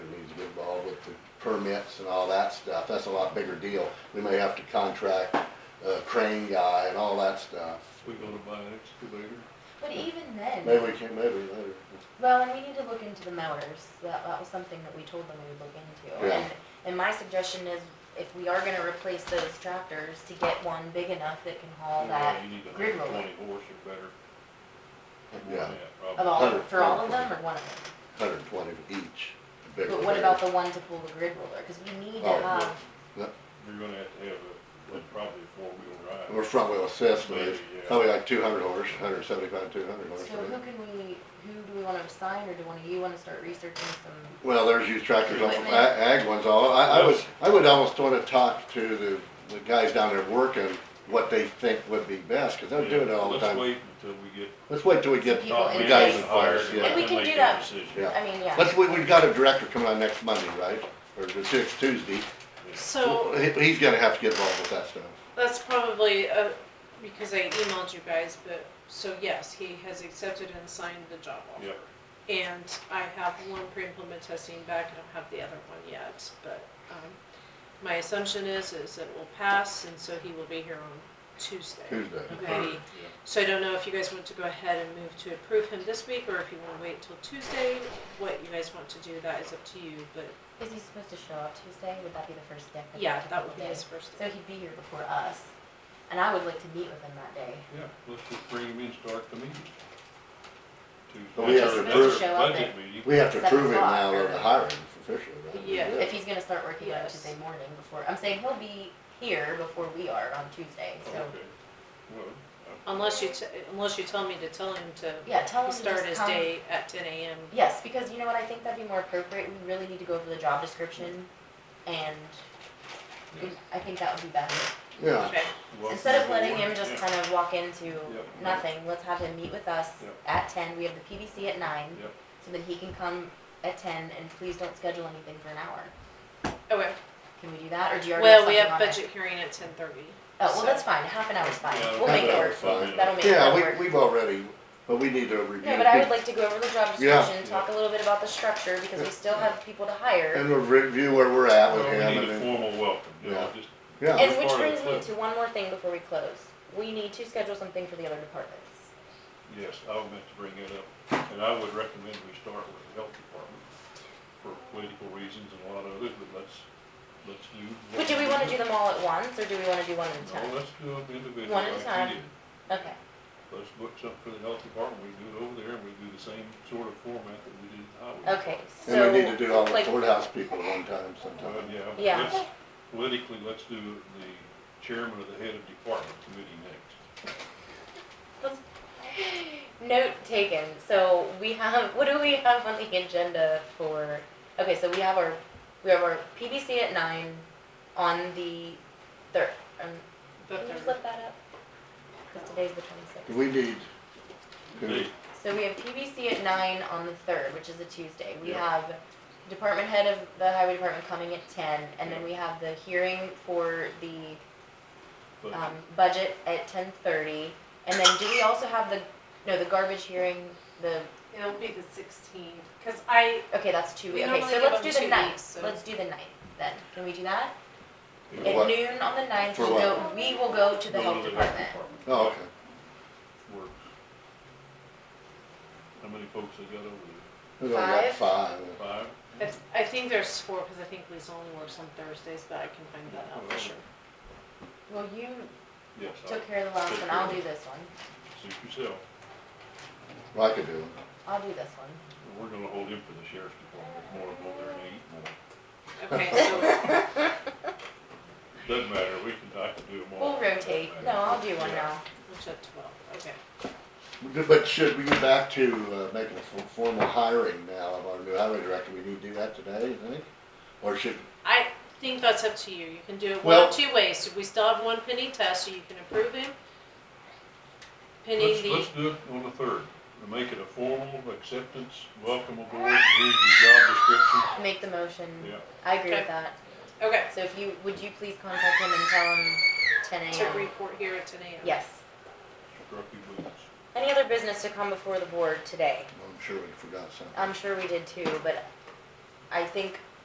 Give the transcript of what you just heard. get the permits and all that stuff, that's a lot bigger deal. We may have to contract a crane guy and all that stuff. We go to buy an excavator. But even then, Maybe we can, maybe later. well, and we need to look into the mowers, that, that was something that we told them we would look into. Yeah. And- And my suggestion is, if we are gonna replace those tractors, to get one big enough that can haul that You need a grid hundred roller. twenty horse or better. More Yeah, than that, Of probably. all, Hundred- for all of them, or one of them? hundred and twenty each. big But what one. about the one to pull the grid roller, cause we need to Oh, have, You're gonna have to have a, like, probably a four-wheel Or drive. front wheel assist, but it's Maybe, yeah. probably like two hundred horse, hundred seventy-five, two hundred horse. so who can we, who do we wanna assign, or do one of you wanna start researching some? Well, there's used tractors, off of Equipment. ag ag ones, all, I, I would, Yes. I would almost wanna talk to the, the guys down there working, what they think would be best, cause they're doing it all the Let's time. wait until we get. Let's wait till we get, People top in men place. and hired Yeah. let And we them can make do their that. decision. Yeah. I mean, yeah. let's, we, we've got a director coming on next Monday, right? Or the sixth Tuesday, So he, he's gonna have to get involved with that stuff. that's probably, uh, because I emailed you guys, but, so yes, he has accepted and signed the job offer. Yep. And I have one pre-implement testing back, I don't have the other one yet, but, um, my assumption is, is it will pass, and so he will be here on Tuesday. Tuesday. Okay, so I don't know if you guys want to go ahead and move to approve him this week, or if you wanna wait till Tuesday, what you guys want to do, that is up to you, but, Is he supposed to show up Tuesday? Would that be the first day? yeah, that would would be his first. So he'd be here before us, and I would like to meet with him that day. Yeah, let's just bring him in, start the meeting. But we Tuesday, have to another prove- Show up budget at- meeting. We have to Seven approve him o'clock, now of the or- hiring officially, right? Yeah. If he's gonna start working on Yes. Tuesday morning before, I'm saying he'll be here before we are on Tuesday, so. Okay. Well, I- Unless you, t- unless you tell me to tell him to Yeah, tell him to start just his come. day at ten AM. Yes, because you know what, I think that'd be more appropriate, we really need to go over the job description, and Yes. I think that would be better. Yeah, Okay, welcome Instead of letting aboard. him just Yeah. kind of walk into Yep. nothing, let's have him meet with us Yep. at ten, we have the PBC at nine. Yep. So that he can come at ten, and please don't schedule anything for an hour. okay. Can we do that, or do you already have Well, we something on have it? budget hearing at ten thirty. Oh, well, that's fine, half an hour's fine, Yeah, we'll make it half an work, hour's fine. that'll make it work. yeah, we, we've already, but we need to review. No, but I would like to go over the job Yeah. description, talk a little bit about the structure, because we still have people to hire. And we'll review where we're at with Well, him we and need a then, formal welcome, you know, Yeah. just yeah, And which part of brings the me clip. to one more thing before we close, we need to schedule something for the other departments. Yes, I was meant to bring that up, and I would recommend we start with the health department for political reasons and a lot of others, but let's, let's do. what But do we wanna do them all at once, or do we wanna do one at a No, time? let's do them individually. One at like we a time. did. Okay, Let's book something for the health department, we do it over there, and we do the same sort of format that we did the highway. okay, so. and we need to do all the like, courthouse people at one time Well, sometime. yeah, but Yeah. let's, politically, let's do the chairman of the head of department committee next. Note taken. So we have, what do we have on the agenda for, okay, so we have our, we have our PBC at nine on the third, um, can you flip that up? Cause today's the twenty-sixth. We need, Uh-huh. Hey, to- So we have PBC at nine on the third, which is a Tuesday. We Yeah. have department head of the highway department coming at ten, and then we have the hearing for the but um, budget at ten thirty. And then do we also have the, no, the garbage hearing, the It'll be the sixteenth, cause I, Okay, that's two We weeks. Okay, normally so give let's them do the two ninth. weeks, so- Let's do the ninth then. Can we do that? For At what? noon on the ninth, For we'll go, we will go to the go health department. oh, okay. Works. How many folks they got over there? We've only got Five? five. Five? it's- I think there's four, cause I think Lisa only works on Thursdays, but I can find that out for sure. Well, you Yes, I took care of the last Took one. care I'll of do it. this one. suit yourself. Well, I could do it. I'll do this one. We're gonna hold him for the sheriff's department, more to go there and eat more. Okay, so, Doesn't matter, we can, I can do them all. We'll rotate. No, I'll do one now. which at twelve, okay. But should we get back to uh, making a for- formal hiring now of our new highway director? We need to do that today, you think? Or should, I think that's up to you, you can do it one Well- of two ways, we still have one pending test, so you can approve him. Pending Let's, the, let's do it on the third, and make it a formal acceptance, welcome aboard, here's your job description. Make the motion. Yeah, I agree with Okay. that. okay, So if you, would you please contact him and tell him ten to AM? report here at ten AM. Yes. struck you boots. Any other business to come before the board today? I'm sure we forgot something. I'm sure we did too, but I think